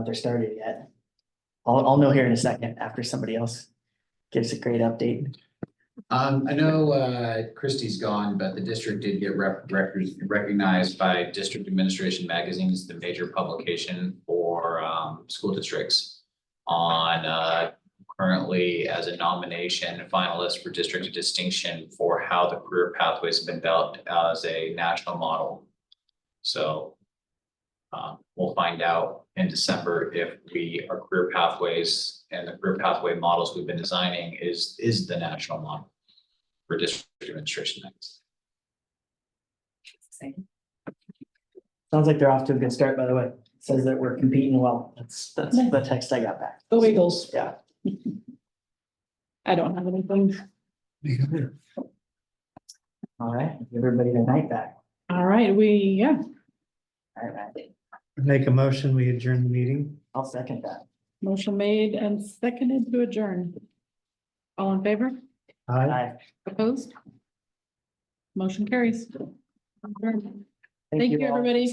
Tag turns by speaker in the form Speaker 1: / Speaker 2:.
Speaker 1: if they're started yet. I'll, I'll know here in a second after somebody else gives a great update.
Speaker 2: Um, I know, uh, Christie's gone, but the district did get rep, records- recognized by District Administration Magazine as the major publication for, um, school districts. On, uh, currently as a nomination finalist for District of Distinction for how the career pathways have been developed as a national model. So. Um, we'll find out in December if we, our career pathways and the career pathway models we've been designing is, is the national model for district administration next.
Speaker 1: Sounds like they're off to a good start, by the way. Says that we're competing well. That's, that's the text I got back.
Speaker 3: The Wiggles.
Speaker 1: Yeah.
Speaker 3: I don't have anything.
Speaker 1: All right, give everybody their night back.
Speaker 3: All right, we, yeah,
Speaker 1: All right,
Speaker 4: Make a motion, we adjourn the meeting.
Speaker 1: I'll second that.
Speaker 3: motion made and seconded to adjourn. All in favor?
Speaker 4: Aye.
Speaker 1: Bye.
Speaker 3: Opposed? Motion carries. Adjourn.
Speaker 1: all.
Speaker 3: Thank you, everybody.